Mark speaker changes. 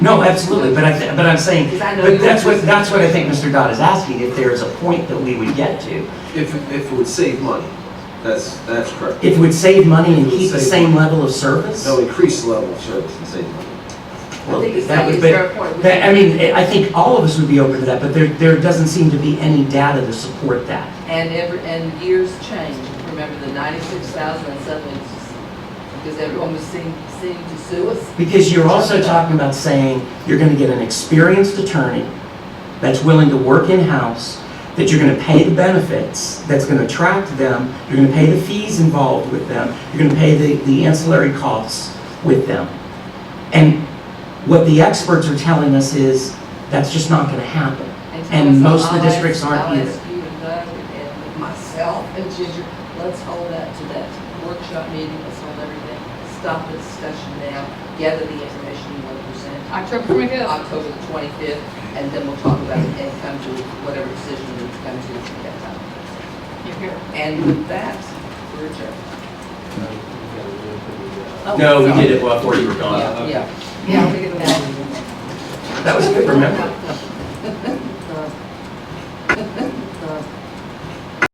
Speaker 1: No, absolutely, but I, thi- but I'm saying,
Speaker 2: Because I know
Speaker 1: but
Speaker 2: you
Speaker 1: that's
Speaker 2: were-
Speaker 1: what, that's what I think Mr. Dodd is asking, if there is a point that we would get to.
Speaker 3: If, if it would save money, that's, that's correct.
Speaker 1: If it would save money and
Speaker 3: It would
Speaker 1: keep the
Speaker 3: save
Speaker 1: same
Speaker 3: money.
Speaker 1: level of service?
Speaker 3: They'll increase the level of service and save money.
Speaker 1: Well,
Speaker 2: I think it's
Speaker 1: that
Speaker 2: like
Speaker 1: would-
Speaker 2: it's
Speaker 1: but-
Speaker 2: your point.
Speaker 1: that- I mean, I think all of us would be open to that, but there, there doesn't seem to be any data to support that.
Speaker 2: And every, and years change, remember the ninety-six thousand and suddenly, it's just- because everyone was seem, seemed to sue us?
Speaker 1: Because you're also talking about saying you're going to get an experienced attorney that's willing to work in-house, that you're going to pay the benefits, that's going to attract them, you're going to pay the fees involved with them, you're going to pay the, the ancillary costs with them. And what the experts are telling us is, that's just not going to happen. And
Speaker 2: Thomas,
Speaker 1: most of the
Speaker 2: I'll ask-
Speaker 1: districts aren't
Speaker 2: I'll
Speaker 1: either.
Speaker 2: ask you and Doug and myself and Ginger, let's hold that to that workshop meeting, let's hold everything. Stop the discussion now, gather the information you want to present,
Speaker 4: October twenty-fifth.
Speaker 2: October the twenty-fifth, and then we'll talk about it and come to whatever decision we come to at that time.
Speaker 4: You're here.
Speaker 2: And with that, we're adjourned. Oh,
Speaker 1: No, we
Speaker 2: sorry.
Speaker 1: did it before you were gone.
Speaker 2: Yeah, yeah. Yeah, we get that.
Speaker 1: That was good, remember?